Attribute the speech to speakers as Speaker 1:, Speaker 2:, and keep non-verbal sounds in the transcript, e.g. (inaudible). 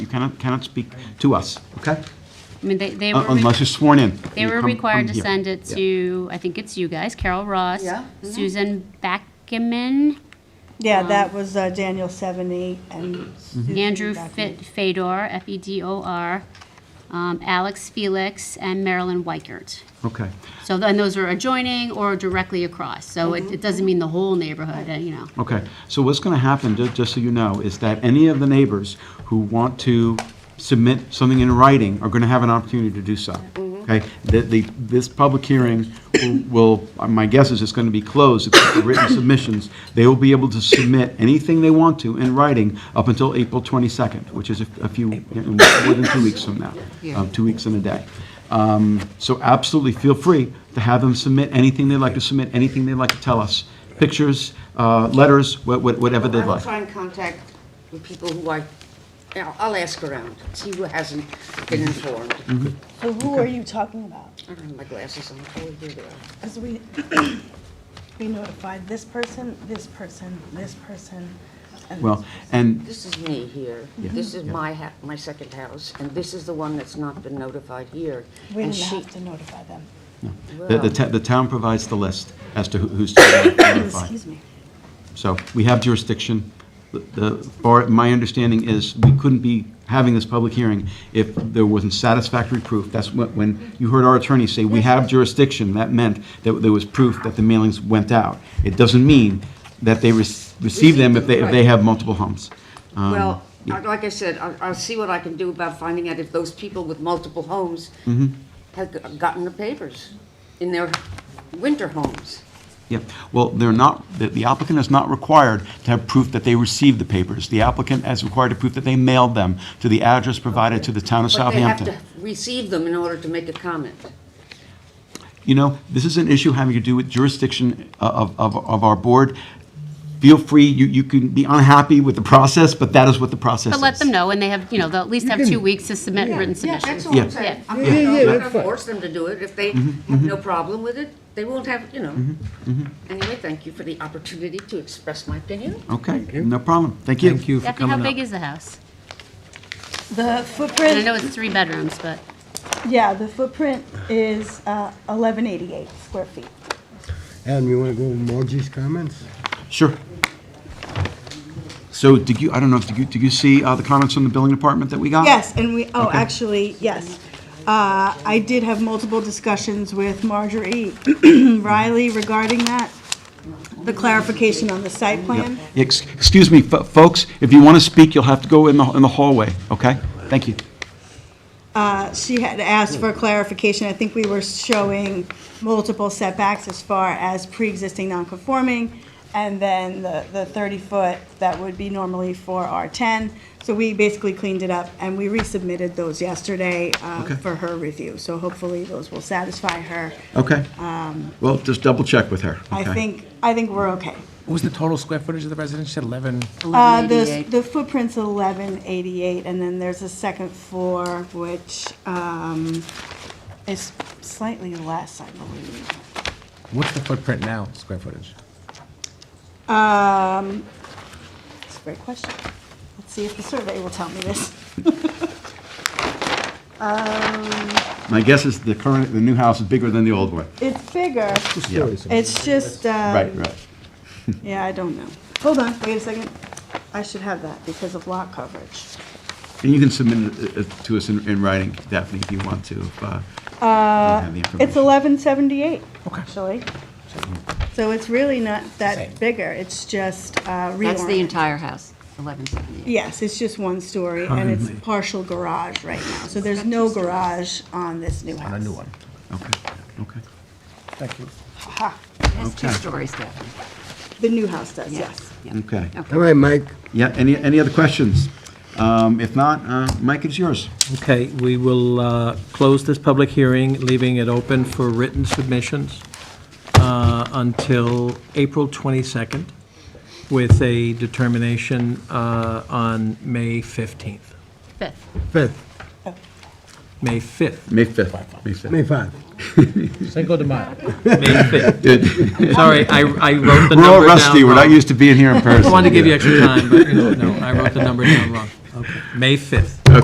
Speaker 1: cannot, cannot speak to us, okay?
Speaker 2: I mean, they, they were.
Speaker 1: Un- Unless you're sworn in.
Speaker 2: They
Speaker 1: You
Speaker 2: were
Speaker 1: come-
Speaker 2: required
Speaker 1: come
Speaker 2: to
Speaker 1: here.
Speaker 2: send it
Speaker 1: Yeah.
Speaker 2: to, I think it's you guys, Carol Ross,
Speaker 3: Yeah. Mm-hmm.
Speaker 2: Susan Backerman,
Speaker 4: Yeah, that was uh, Daniel 78 and. Susan
Speaker 2: Mm-hmm. Andrew
Speaker 4: back
Speaker 2: Fe-
Speaker 4: in-
Speaker 2: Fedor, E F-E-D-O-R, um, Alex Felix, and Marilyn Weikert.
Speaker 1: Okay.
Speaker 2: So then those are adjoining or directly across, so
Speaker 3: Mm-hmm.
Speaker 2: it, it doesn't mean the whole neighborhood, uh, you know.
Speaker 1: Okay, so what's going to happen, ju- just so you know, is that any of the neighbors who want to submit something in writing are going to have an opportunity to do so. Okay, that the, this public hearing will, will- my guess is it's going to be closed, except for written submissions. They will be able to submit anything they want to in writing up until April 22nd, which is a a few, more than two weeks from now, um, two weeks and a day. Um, So absolutely feel free to have them submit anything they'd like to submit, anything they'd like to tell us, pictures, uh, letters, wha- wha- whatever they'd
Speaker 3: I'll
Speaker 1: like.
Speaker 3: try and contact the people who I, I'll I'll ask around, see who hasn't been informed.
Speaker 1: Mm-hmm.
Speaker 4: So who are you talking about?
Speaker 3: I don't have my glasses on, oh, here they are.
Speaker 4: Because we, we notified this person, this person, this person. and
Speaker 1: Well, and,
Speaker 3: This is me here, this is my ha, my second house, and this is the one that's not been notified here.
Speaker 4: We
Speaker 3: And
Speaker 4: didn't
Speaker 3: she-
Speaker 4: have to notify them.
Speaker 1: The, the ta- the town provides the list as to who- who's to be notified.
Speaker 4: Excuse me.
Speaker 1: So we have jurisdiction. The- The, bar- my understanding is we couldn't be having this public hearing if there wasn't satisfactory proof. That's when, when you heard our attorney say, we have jurisdiction, that meant that there was proof that the mailings went out. It doesn't mean that they rec- receive them if they, if they have multiple homes. Um,
Speaker 3: Well,
Speaker 1: yeah.
Speaker 3: I- like I said, I'll, I'll see what I can do about finding out if those people with multiple homes
Speaker 1: Mm-hmm.
Speaker 3: have g- gotten the papers in their winter homes.
Speaker 1: Yeah, well, they're not, the- the applicant is not required to have proof that they received the papers. The applicant is required to prove that they mailed them to the address provided to the town of
Speaker 3: But they have
Speaker 1: Southampton.
Speaker 3: to receive them in order to make a comment.
Speaker 1: You know, this is an issue having to do with jurisdiction uh, of, of, of our board. Feel free, you, you can be unhappy with the process, but that is what the process
Speaker 2: But
Speaker 1: is.
Speaker 2: let them know, and they have, you know, they'll at least have two weeks to submit written
Speaker 3: Yeah, that's
Speaker 2: submissions.
Speaker 3: all
Speaker 1: Yeah.
Speaker 3: I'm saying. I'm
Speaker 5: Yeah, yeah,
Speaker 3: not going to
Speaker 5: that's fine.
Speaker 3: force them to do it. If they have no problem with it, they won't have, you know. Anyway, thank you for the opportunity to express my opinion.
Speaker 1: Okay, no problem. Thank you.
Speaker 5: Thank you for
Speaker 2: Daphne, how
Speaker 5: coming
Speaker 2: big
Speaker 5: up.
Speaker 2: is the house?
Speaker 4: The
Speaker 2: And I know
Speaker 4: footprint,
Speaker 2: it's three bedrooms, but,
Speaker 4: yeah, the footprint is uh, 1188 square feet.
Speaker 5: Adam, you want to go with Margie's comments?
Speaker 1: Sure. So did you, I don't know, if- did you, did you see uh, the comments from the building department that we got?
Speaker 4: Yes, and we, oh, actually, yes. Uh, I did have multiple discussions with Marjorie (clears throat) Riley regarding that, the clarification on the site plan.
Speaker 1: Ex- Excuse me, fo- folks, if you want to speak, you'll have to go in the, in the hallway, okay? Thank you.
Speaker 4: Uh, She had asked for clarification. I think we were showing multiple setbacks as far as pre-existing non-conforming, and then the the 30-foot that would be normally for R10. So we basically cleaned it up, and we resubmitted those yesterday uh,
Speaker 1: Okay.
Speaker 4: for her review. So hopefully, those will satisfy her.
Speaker 1: Okay. Well, just double check with her.
Speaker 4: I
Speaker 1: okay?
Speaker 4: think, I think we're okay.
Speaker 6: What was the total square footage of the residence? You said 11.
Speaker 4: Uh, the, the footprint's eleven eighty-eight, and then there's a second floor, which, um, is slightly less, I believe.
Speaker 6: What's the footprint now, square footage?
Speaker 4: Um, it's a great question. Let's see if the survey will tell me this.
Speaker 1: My guess is the current, the new house is bigger than the old one.
Speaker 4: It's bigger,
Speaker 1: Yeah.
Speaker 4: it's just, um.
Speaker 1: Right, right.
Speaker 4: Yeah, I don't know. Hold on, wait a second. I should have that because of lot coverage.
Speaker 1: And you can submit it uh, to us in in writing, Daphne, if you want to. if, uh, you don't have the
Speaker 4: It's
Speaker 1: information.
Speaker 4: eleven seventy-eight,
Speaker 6: Okay.
Speaker 4: actually.
Speaker 1: Mm-hmm.
Speaker 4: So it's really not that
Speaker 6: Same.
Speaker 4: bigger, it's just uh, reorient.
Speaker 7: That's the entire house, 1178.
Speaker 4: Yes, it's just one story, and it's partial garage right now. So there's no garage on this new house.
Speaker 6: On a new one.
Speaker 1: Okay, okay.
Speaker 6: Thank you.
Speaker 4: Ha,
Speaker 7: It has two
Speaker 1: Okay.
Speaker 7: stories, Daphne.
Speaker 4: The new house does, yes.
Speaker 7: Yes. yeah.
Speaker 1: Okay.
Speaker 5: All right, Mike.
Speaker 1: Yeah, any, any other questions? Um, If not, uh, Mike, it's yours.
Speaker 8: Okay, we will uh, close this public hearing, leaving it open for written submissions uh, until April 22nd, with a determination uh, on May 15th,
Speaker 2: fifth.
Speaker 5: 5th,
Speaker 8: May 5th,
Speaker 1: May 5th. May 5th.
Speaker 5: May 5th.
Speaker 6: Cinco de Mayo.
Speaker 8: May
Speaker 1: (laughs)
Speaker 8: 5th.
Speaker 1: Good.
Speaker 8: Sorry, I I wrote the number down
Speaker 1: We're all rusty, we're not
Speaker 8: wrong. (laughs)
Speaker 1: used to being here in person.
Speaker 8: I wanted to give you extra time, but, you know, no, I wrote the number down wrong. Okay, May 5th.